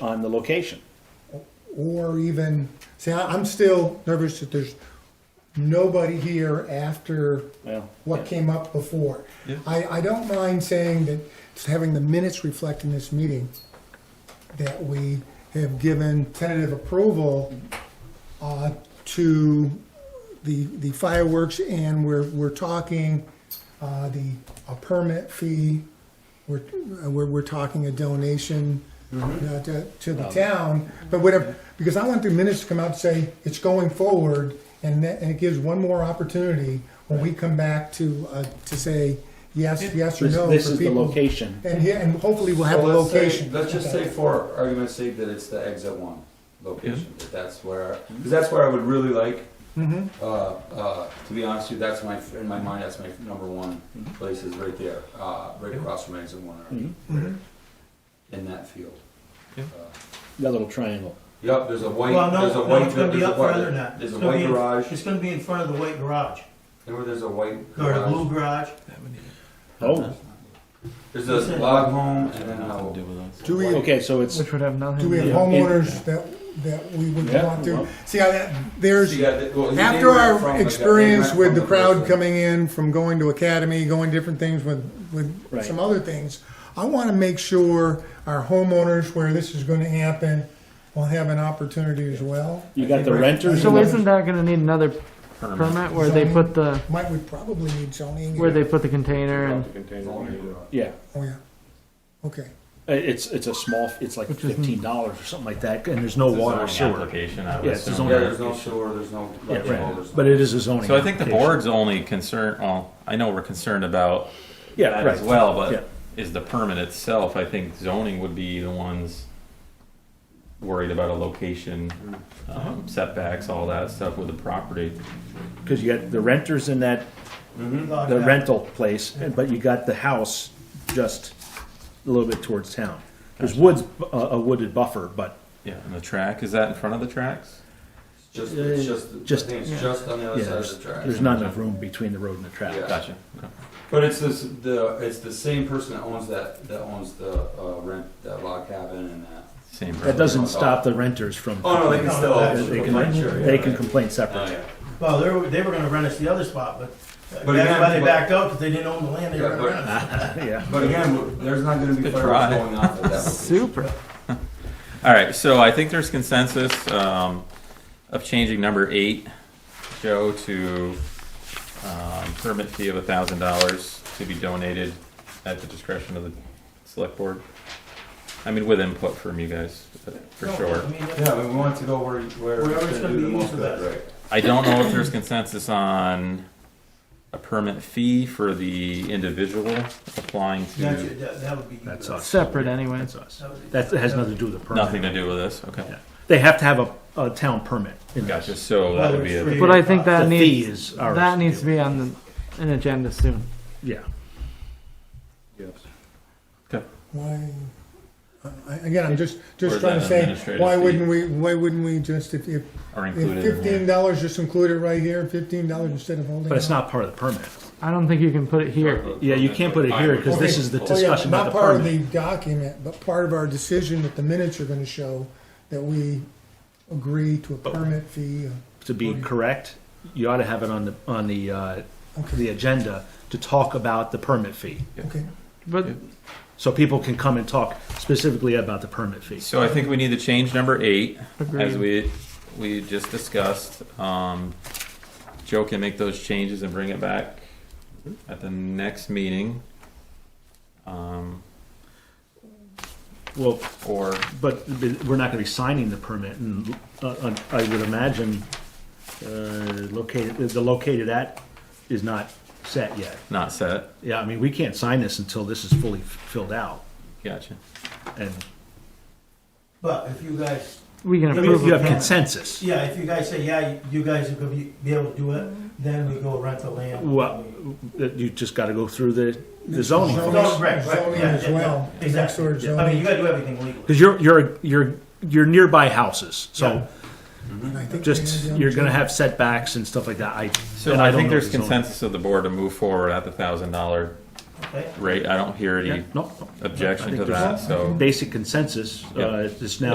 on the location. or even, see, I- I'm still nervous that there's nobody here after Well, what came up before. I, I don't mind saying that, just having the minutes reflect in this meeting, that we have given tentative approval uh, to the, the fireworks, and we're, we're talking uh, the, a permit fee, we're, uh, we're, we're talking a donation Mm-hmm. uh, to, to the town, but whatever, because I want the minutes to come out and say, it's going forward, and that, and it gives one more opportunity when we come back to, uh, to say, yes, yes or This, no. this for is the people. location. And, yeah, and hopefully we'll have a So let's say- location. Let's just say for argument's sake that it's the exit one location, that that's where, because that's where I would really like, Mm-hmm. Mhm. uh, uh, to be honest with you, that's my, in my mind, that's my number one Mm-hmm. place is right there, uh, right across from exit one, Mhm. Mm-hmm. or right in that field. That little triangle. Yep, there's a white, Well, there's a no, no, white, it's gonna there's be a up further white, than that. there's a It's gonna white be in- garage, It's gonna be in front of the white garage, remember there's a white or the blue garage? garage. Uh-huh. Oh, There's a log home and then a, Do we, Oh, okay, so it's, Which would have nothing do we to have do. homeowners that, that we would Yeah, want to? well. See, I, there's, So you got the- well, you named after it from the guy- our they experience ran with from the crowd person. coming in from going to academy, going different things with, with Right. some other things, I want to make sure our homeowners where this is going to happen will have an opportunity as well. you got the renters. So and the- isn't that gonna need another permit where they put the, Might, we probably need zoning. where they put the container and, Yeah, Oh, yeah. Okay. Uh, it's, it's a small, it's like Which is- fifteen dollars or something like that, and there's no water or sewer. Application, I would Yeah, it's a assume. Yeah, zoning there's no application. sewer, there's no. Yeah, electrical, right. there's no- But it is a zoning. So I think the application. board's only concern, well, I know we're concerned about Yeah, that as right. well, Yeah. but is the permit itself, I think zoning would be the ones worried about a location, Uh-huh. um, setbacks, all that stuff with the property. Cause you got the renters in that, Oh, the rental place, and- but you got the house just a little bit towards town. There's woods, a a wooded buffer, but Yeah, and the track, is that in front of the tracks? Just, it's just, Just- I think yeah. it's just on the yeah, other side there's of the track. there's not enough room between the road and the track. Yeah. Gotcha. Okay. But it's this, the, it's the same person that owns that, that owns the, uh, rent, that log cabin and that. Same. That doesn't stop the renters from. Oh, no, they can still. They They Right, sure, can, yeah, they can right. complain Oh, separately. yeah. Well, they were, they were gonna rent us the other spot, but But again, everybody but- backed out because they didn't own the land they were Yeah, gonna but- rent us. Oh, Yeah. But again, w- there's not gonna be Good fireworks try. going off at that. location. super. All right, so I think there's consensus um, of changing number eight, Joe, to um, permit fee of a thousand dollars to be donated at the discretion of the select board. I mean, with input from you guys, for No, sure. I mean, that's- Yeah, but we want to go where, where Wherever it's gonna do the used most for good, that. right? I don't know if there's consensus on a permit fee for the individual applying that's- to, That that would be. That's that us. Separate anyway. That's us. would be- That has nothing to do with the permit. nothing to do with this, okay. Yeah. They have to have a, a town permit. in there. Gotcha, so that would be a, But I think that The fee needs, is ours. that needs to be on the, an agenda soon. Yeah. Why, I- again, I'm just, Or just is trying that to an say, administrative why fee? wouldn't we, why wouldn't we just, if, if are included If in fifteen here. dollars, just include it right here, fifteen dollars instead of holding. But it's out. not part of the permit. I don't think you can put it here. Yeah, you can't put it here 'cause this is the Oh, yeah, discussion about the part of the permit. document, but part of our decision that the minutes are gonna show that we agree to a permit fee. To be correct, you ought to have it on the, on the, uh, the Okay, agenda to talk about the permit fee. okay. But So people can come and talk specifically about the permit fee. So I think we need to change number eight, as Agreed. we, we just discussed. Um, Joe can make those changes and bring it back at the next meeting. Um, Well, or, but we're not gonna be signing the permit and, uh, I would imagine, uh, located, the located at is not set yet. not set, Yeah, I mean, we can't sign this until this is fully f- filled out, gotcha. and But if you guys, we can Yeah, you approve you have it. consensus. yeah, if you guys say, yeah, you- you guys are gonna be, be able to do it, then we go rent the land. Well, that you just got to go through the, the zoning Zoning, first, No, right, right, zoning yeah, as yeah, well, yeah, next exactly. door I mean, you zoning. gotta do everything legally. because you're you're you're you're nearby houses, so And I think we had just the other you're going to two. have setbacks and stuff like that. I So and I don't think know there's the zoning. consensus of the board to move forward at the thousand dollar okay? rate. I don't hear Yeah, any no, no. I objection think to there's that, so. Basic consensus, Yeah. uh, it's now